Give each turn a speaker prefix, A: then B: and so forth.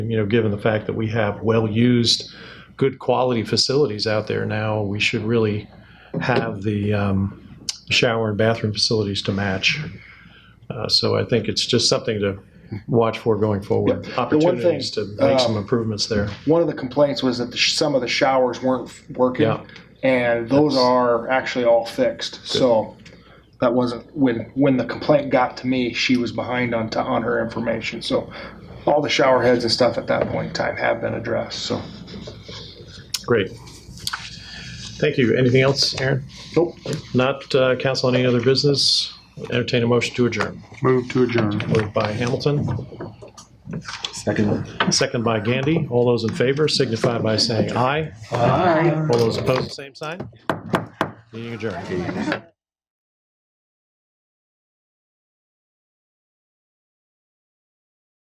A: You know, given the fact that we have well-used, good quality facilities out there now, we should really have the um, shower and bathroom facilities to match. Uh, So I think it's just something to watch for going forward,
B: one thing,
A: opportunities to make some
B: um,
A: improvements there.
B: One of the complaints was that the, sh- some of the showers weren't f- working,
A: Yeah.
B: and those are actually all fixed. So that wasn't when when the complaint got to me. She was behind on t- on her information. So all the shower heads and stuff at that point in time have been addressed. So
A: Great. Thank you. Anything else, Aaron?
B: nope,
A: Not uh, council on any other business? Entertain a motion to adjourn.
B: move to adjourn.
A: Moved by Hamilton,
C: Second.
A: second by Gandy. All those in favor signify by saying aye. Aye. All those opposed, same sign. Meeting adjourned.